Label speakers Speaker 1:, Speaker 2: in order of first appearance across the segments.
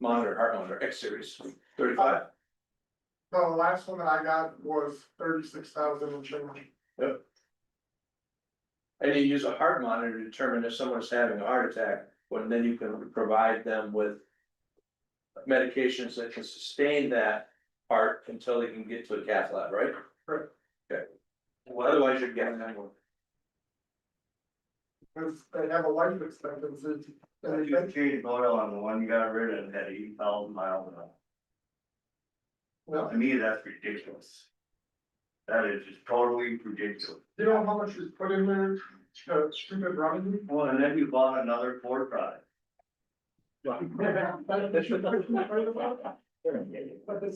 Speaker 1: monitor, heart monitor, X series, thirty-five.
Speaker 2: The last one that I got was thirty-six thousand and change.
Speaker 1: And you use a heart monitor to determine if someone's having a heart attack, when then you can provide them with. Medications that can sustain that heart until they can get to a cath lab, right?
Speaker 2: Correct.
Speaker 1: Okay. Well, otherwise you're getting that one.
Speaker 2: Cause they have a life expectancy.
Speaker 3: If
Speaker 2: And
Speaker 3: you
Speaker 2: they,
Speaker 3: change oil on the one you got rid of, had eight thousand miles on it.
Speaker 2: well,
Speaker 3: To me, that's ridiculous. That is just totally ridiculous.
Speaker 2: you know how much is put in there to keep it running?
Speaker 3: Well, and then you bought another Ford product.
Speaker 2: But the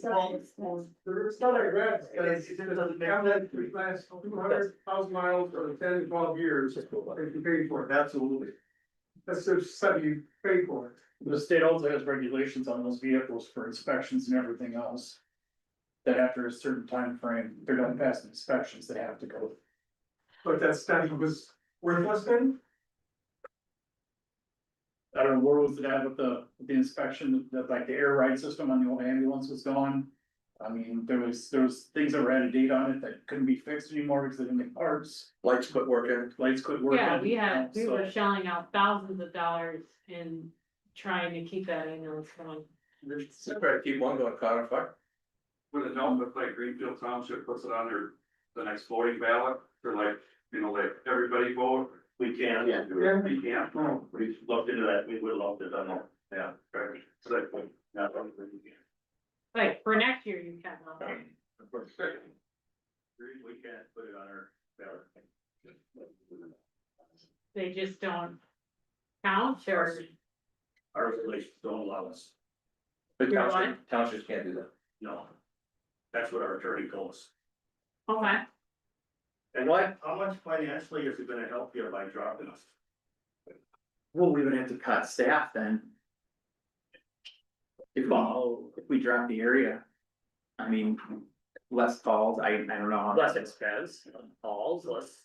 Speaker 2: second, there's not a grant, but it's, it's down that three last two hundred thousand miles or ten, to twelve years, if you pay for it,
Speaker 3: Absolutely.
Speaker 2: that's the stuff you pay for it.
Speaker 4: The state also has regulations on those vehicles for inspections and everything else. That after a certain time frame, they're not past inspections, they have to go.
Speaker 2: But that study was worthless then,
Speaker 4: I don't know, where was it at with the, with the inspection, that like the air ride system on the old ambulance was gone? I mean, there was, there was things that were out of date on it that couldn't be fixed anymore because they didn't make parts,
Speaker 1: Lights quit working,
Speaker 4: lights quit working.
Speaker 5: Yeah, we had, we
Speaker 4: so-
Speaker 5: were shelling out thousands of dollars in trying to keep that ambulance going.
Speaker 1: so try to keep one going caught on fire.
Speaker 6: With a note that like Greenfield Township puts it on their, the next voting ballot, they're like, you know, like, everybody vote. Oh.
Speaker 3: We can.
Speaker 5: Yeah.
Speaker 3: do it. We can. not We looked into that, we would love to done that. Yeah. correct. It's like, no, we can.
Speaker 5: Like, for next year, you can, huh?
Speaker 3: Of course. Agreed, We can't put it on our ballot.
Speaker 5: they just don't count or,
Speaker 3: Our regulations don't allow us,
Speaker 1: But
Speaker 5: You're
Speaker 1: townships, townships can't do that.
Speaker 3: no. That's what our attorney told us.
Speaker 5: oh my,
Speaker 3: And what, how much financially is it gonna help you by dropping us?
Speaker 7: Well, we would have to cut staff then. If we, if we drop the area. I mean, less calls, I, I don't know. how
Speaker 8: less expense, calls, less.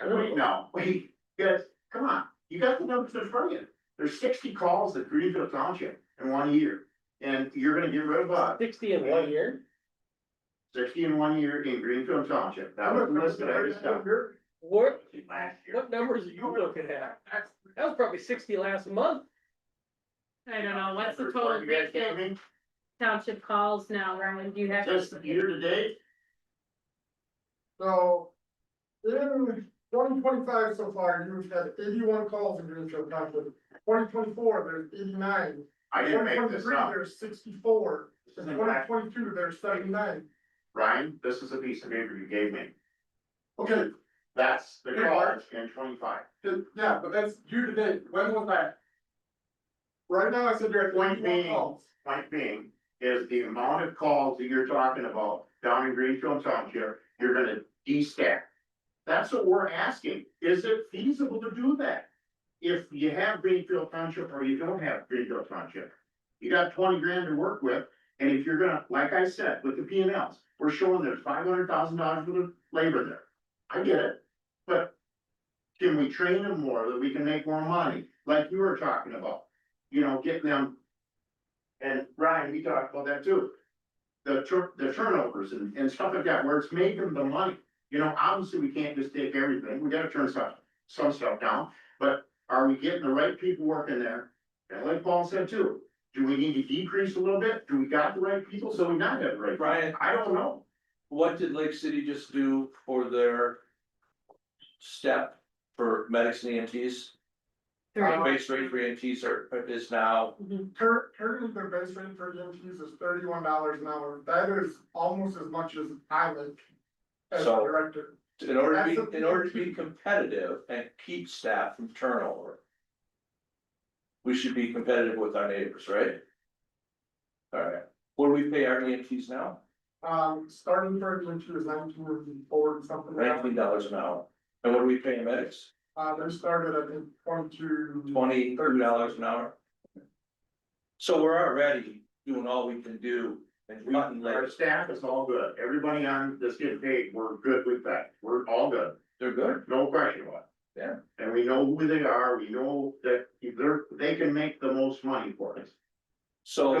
Speaker 3: Wait, now, wait, guys, come on, you got the numbers in front of you, there's sixty calls at Greenfield Township in one year. And you're gonna get rid of about
Speaker 8: Sixty in one year?
Speaker 3: sixty in one year in Greenfield Township, that was the list that I just got.
Speaker 8: What,
Speaker 3: Last year.
Speaker 8: what numbers are you looking at? That was probably sixty last month.
Speaker 5: I don't know, what's the total
Speaker 3: You guys get
Speaker 5: Greenfield
Speaker 3: me?
Speaker 5: township calls now, Rowan, do you have?
Speaker 3: Just year to date,
Speaker 2: So. In twenty twenty-five so far, you've had eighty-one calls in Greenfield Township, twenty twenty-four, there's eighty-nine.
Speaker 3: I didn't make this
Speaker 2: 2023,
Speaker 3: up,
Speaker 2: There's sixty-four,
Speaker 3: This
Speaker 2: in
Speaker 3: isn't
Speaker 2: twenty
Speaker 3: fact.
Speaker 2: twenty-two, there's seventy-nine,
Speaker 3: Ryan, this is a piece of paper you gave me,
Speaker 2: okay,
Speaker 3: that's the
Speaker 2: Yeah.
Speaker 3: college in twenty-five.
Speaker 2: th- yeah, but that's due to date, when was that? Right now, I said you're at
Speaker 3: Point
Speaker 2: twenty-one
Speaker 3: being,
Speaker 2: calls,
Speaker 3: point being, is the amount of calls that you're talking about down in Greenfield Township, you're gonna de-stack. That's what we're asking, is it feasible to do that? If you have Greenfield Township or you don't have Greenfield Township, you got twenty grand to work with, and if you're gonna, like I said, with the P and Ls, we're showing there's five hundred thousand dollars worth of labor there. I get it, but can we train them more that we can make more money, like you were talking about? You know, get them and Ryan, we talked about that too. The tur- the turnovers and, and stuff like that, where it's making the money, you know, obviously we can't just take everything, we gotta turn some, some stuff down. But are we getting the right people working there? And like Paul said too, do we need to decrease a little bit? Do we got the right people? So we not have the right? people?
Speaker 1: Brian.
Speaker 3: I don't know.
Speaker 1: What did Lake City just do for their? Step for medics and E EMTs?
Speaker 5: Three.
Speaker 1: Base rate for EMTs are, is now
Speaker 5: Mhm.
Speaker 2: Um, Cur- currently their base rate for EMTs is thirty-one dollars an hour, that is almost as much as I make. As a
Speaker 1: So-
Speaker 2: director,
Speaker 1: In order to be,
Speaker 2: Absolutely.
Speaker 1: in order to be competitive and keep staff from turnover. We should be competitive with our neighbors, right? Alright, what do we pay our EMTs now?
Speaker 2: um, starting for EMT is nineteen or four, something like that.
Speaker 1: Nineteen dollars an hour, and what do we pay medics?
Speaker 2: Uh, they started at the twenty-two.
Speaker 1: Twenty, thirty dollars an hour? So we're already doing all we can do and
Speaker 3: We-
Speaker 1: cutting
Speaker 3: Our
Speaker 1: labor,
Speaker 3: staff is all good, everybody on that's getting paid, we're good with that, we're all good.
Speaker 1: they're good,
Speaker 3: No question about it.
Speaker 1: Yeah.
Speaker 3: And we know who they are, we know that if they're, they can make the most money for us.
Speaker 1: So.